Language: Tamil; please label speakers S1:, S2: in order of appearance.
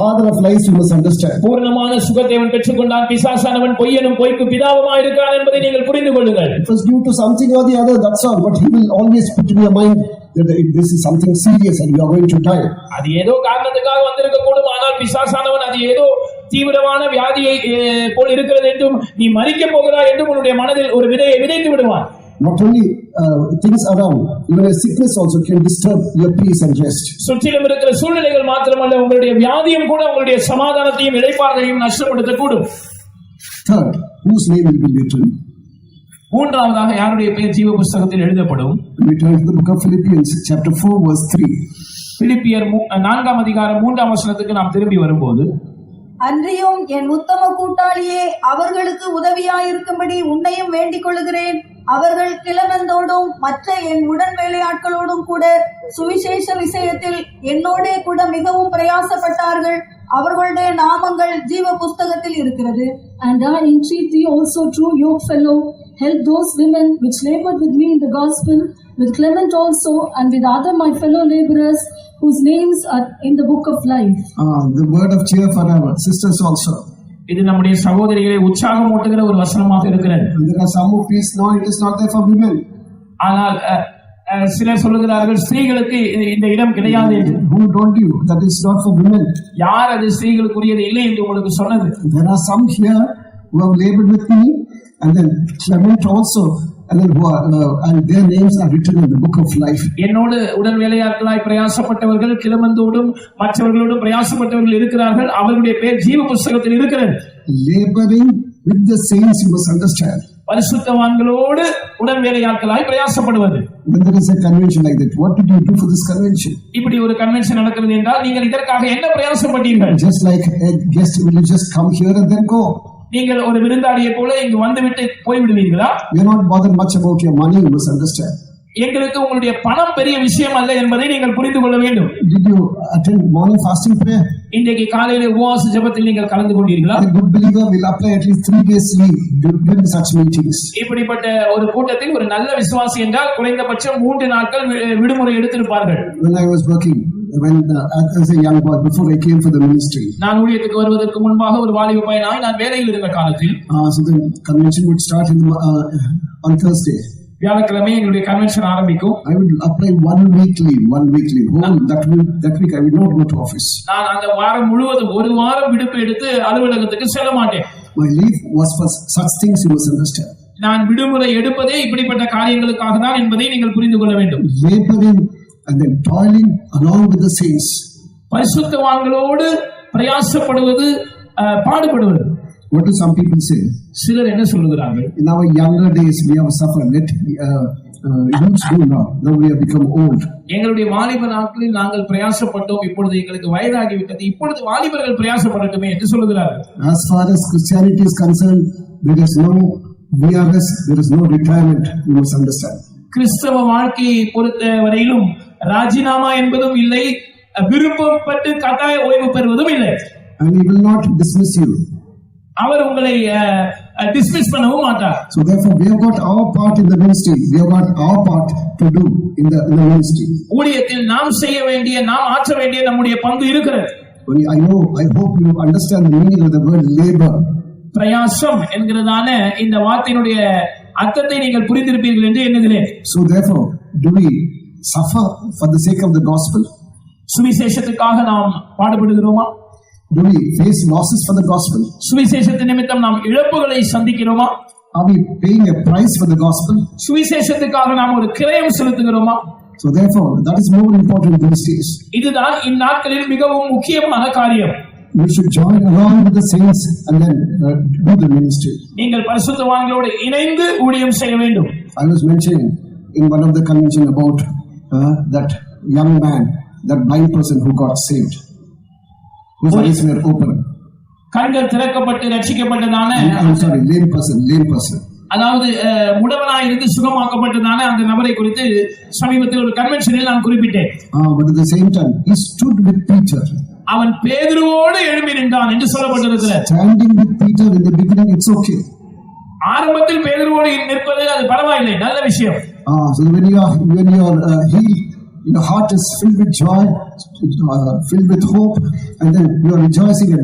S1: Father of lies, you must understand.
S2: பூரணமான சுகத்தை அவன் பெற்றுக்கொண்டான் பிசாசானவன் பொய்யனும் பொய்க்கு பிதாவுமா இருக்கான் என்பதை நீங்கள் புரிந்து கொள்ளுங்கள்
S1: It was due to something or the other, that's all. But he will always put in your mind that if this is something serious and you are going to die.
S2: அது ஏதோ காரணத்துக்காக வந்திருக்க கூடும் ஆனால் பிசாசானவன் அது ஏதோ தீவிரமான வியாதியை அஹ், போல் இருக்கிறது என்றும் நீ மறிக்கப் போகிறாய் என்றும் உன்னுடைய மனதில் ஒரு விதையை விதைத்து விடுவான்
S1: Not only uh, things around, even a sickness also can disturb your peace and rest.
S2: சுற்றிலும் இருக்கிற சூழ்நிலைகள் மாத்திரமல்ல உங்களுடைய வியாதியும் கூட உங்களுடைய சமாதானத்தையும் இழைப்பாதையும் நஷ்டப்படுத்தக்கூடும்
S1: Third, whose name will be written?
S2: மூன்றாவதாக யாருடைய பெயர் ஜீவ புஸ்தகத்தில் எழுதப்படும்
S1: We turn to the book of Philippians, chapter 4, verse 3.
S2: பிலிப்பியர் மூ- நான்காம் அதிகாரம் மூன்றாம் வசனத்துக்கு நாம் திரும்பி வரும்போது
S3: அன்றியும் என் உத்தம கூட்டாளியே அவர்களுக்கு உதவியாயிருக்கும்படி உன்னையும் வேண்டிக் கொள்கிறேன் அவர்கள் கிழவந்தோடும் மற்ற என் உடன் வேலையாட்களோடும் கூட சுவிசேஷ விஷயத்தில் என்னோடே கூட மிகவும் பிரயாசப்பட்டார்கள் அவர்களுடைய நாமங்கள் ஜீவ புஸ்தகத்தில் இருக்கிறது
S4: And I entreat thee also, true yoke fellow, help those women which labored with me in the gospel, with Clement also, and with other my fellow laborers, whose names are in the book of life.
S1: Ah, the word of cheer for our sisters also.
S2: இது நம்முடைய சகோதரிகளை உற்சாகம் ஊட்டுகிற ஒரு வசனமாக இருக்கிறது
S1: And there are some who feel, no, it is not there for women.
S2: ஆனால் அஹ், அஹ், சிலர் சொல்லுகிறார்கள் ஸ்திரீகளுக்கு இ- இந்த இடம் கிடையாது என்று
S1: Who told you that it's not for women?
S2: யார் அது ஸ்திரீகளுக்குரியது இல்லை என்று உங்களுக்கு சொன்னது
S1: There are some here who have labored with me, and then Clement also, and then who are, uh, and their names are written in the book of life.
S2: என்னோடு உடல் வேலையாட்களாய் பிரயாசப்பட்டவர்கள் கிளமந்தோடும் மற்றவர்களோடும் பிரயாசப்பட்டவர்கள் இருக்கிறார்கள் அவர்களுடைய பெயர் ஜீவ புஸ்தகத்தில் இருக்கிறது
S1: Laboring with the saints, you must understand.
S2: பரிசுத்தவான்களோடு உடல் வேலையாட்களாய் பிரயாசப்படுவது
S1: When there is a convention like that, what did you do for this convention?
S2: இப்படி ஒரு கன்வென்ஷன் நடக்கிறது என்றால் நீங்கள் இதற்காக என்ன பிரயாசப்பட்டீர்கள்
S1: Just like a guest will you just come here and then go.
S2: நீங்கள் ஒரு விருந்தாளியை போல இங்கு வந்துவிட்டு போய்விடுவீர்களா
S1: You're not bothered much about your money, you must understand.
S2: எங்களுக்கு உங்களுடைய பணம் பெரிய விஷயம் அல்ல என்பதை நீங்கள் புரிந்து கொள்ள வேண்டும்
S1: Did you attend morning fasting prayer?
S2: இன்றைக்கு காலையில உபவாச ஜெபத்தில் நீங்கள் கலந்து கொண்டீர்களா
S1: A good believer will apply at least three days leave during such meetings.
S2: இப்படிப்பட்ட ஒரு கூட்டத்தில் ஒரு நல்ல விசுவாசி என்றால் குறைந்தபட்சம் மூன்று நாட்கள் வி- விடுமுறை எடுத்திருப்பார்கள்
S1: When I was working, when uh, as a young boy, before I came for the ministry,
S2: நான் ஊழியத்துக்கு வருவதற்கு முன்பாக ஒரு வாலிப பையனாய் நான் வேலையில் இருந்த காலத்தில்
S1: uh, so the convention would start in, uh, on Thursday.
S2: வியாழக்கிழமை எங்களுடைய கன்வென்ஷன் ஆரம்பிக்கும்
S1: I would apply one week leave, one week leave. Whole that week, that week I would not go to office.
S2: நான் அந்த வாரம் முழுவதும் ஒரு வாரம் விடுப்பு எடுத்து அலுவலகத்துக்கு செல்ல மாட்டேன்
S1: My leave was for such things you must understand.
S2: நான் விடுமுறை எடுப்பதே இப்படிப்பட்ட காரியங்களுக்காக தான் என்பதை நீங்கள் புரிந்து கொள்ள வேண்டும்
S1: Laboring and then toiling along with the saints.
S2: பரிசுத்தவான்களோடு பிரயாசப்படுவது ah, பாடுபடுவது
S1: What do some people say?
S2: சிலர் என்ன சொல்லுகிறார்கள்
S1: In our younger days, we have suffered. Let uh, uh, youths do now. Now we have become old.
S2: எங்களுடைய வாலிப நாட்களில் நாங்கள் பிரயாசப்பட்டோம் இப்பொழுது எங்களுக்கு வயதாகிவிட்டது இப்பொழுது வாலிபர்கள் பிரயாசப்படட்டுமே என்று சொல்லுகிறார்கள்
S1: As far as Christianity is concerned, there is no VRS, there is no retirement. You must understand.
S2: கிறிஸ்தவ வாழ்க்கையை பொறுத்த வரையிலும் ராஜினாமா என்பதும் இல்லை விருப்பப்பட்டு கட்டாய ஓய்வு பெறுவதும் இல்லை
S1: And he will not dismiss you.
S2: அவர் உங்களை டிஸ்மிஸ் பண்ணவும் மாட்டார்
S1: So therefore, we have got our part in the ministry. We have got our part to do in the, in the ministry.
S2: ஊழியத்தில் நாம் செய்ய வேண்டிய நாம் ஆற்ற வேண்டிய நம்முடைய பங்கு இருக்கிறது
S1: Only I know, I hope you understand the meaning of the word labor.
S2: பிரயாசம் என்கிறதான இந்த வார்த்தையினுடைய அர்த்தத்தை நீங்கள் புரிந்திருப்பீர்கள் என்று எண்ணுகிறேன்
S1: So therefore, do we suffer for the sake of the gospel?
S2: சுவிசேஷத்துக்காக நாம் பாடுபடுகிறோமா
S1: Do we face losses for the gospel?
S2: சுவிசேஷத்து நிமித்தம் நாம் இழப்புகளை சந்திக்கிறோமா
S1: Are we paying a price for the gospel?
S2: சுவிசேஷத்துக்காக நாம் ஒரு கிரயம் செலுத்துகிறோமா
S1: So therefore, that is more important these days.
S2: இதுதான் இந்நாட்களில் மிகவும் முக்கியமான காரியம்
S1: We should join along with the saints and then uh, do the ministry.
S2: நீங்கள் பரிசுத்தவான்களோடு இணைந்து ஊழியம் செய்ய வேண்டும்
S1: I was mentioning in one of the convention about uh, that young man, that blind person who got saved, whose eyes were open.
S2: கண்கள் திறக்கப்பட்டு ரட்சிக்கப்பட்டதான
S1: I'm sorry, lame person, lame person.
S2: அதாவது அஹ், முடவனாயிருந்து சுகமாக்கப்பட்டதான அந்த நபரை குறித்து சமீபத்தில் ஒரு கன்வென்ஷனில் நான் குறிப்பிட்டேன்
S1: Uh, but at the same time, he stood with Peter.
S2: அவன் பேதுருவோடு எழும்பி நின்றான் என்று சொல்லப்பட்டிருக்கிறது
S1: Standing with Peter in the beginning, it's okay.
S2: ஆரம்பத்தில் பேதுருவோடு நிற்பது அது பரவாயில்லை நல்ல விஷயம்
S1: Ah, so when you are when you are uh, healed, Your heart is filled with joy, uh, filled with hope, and then you are rejoicing and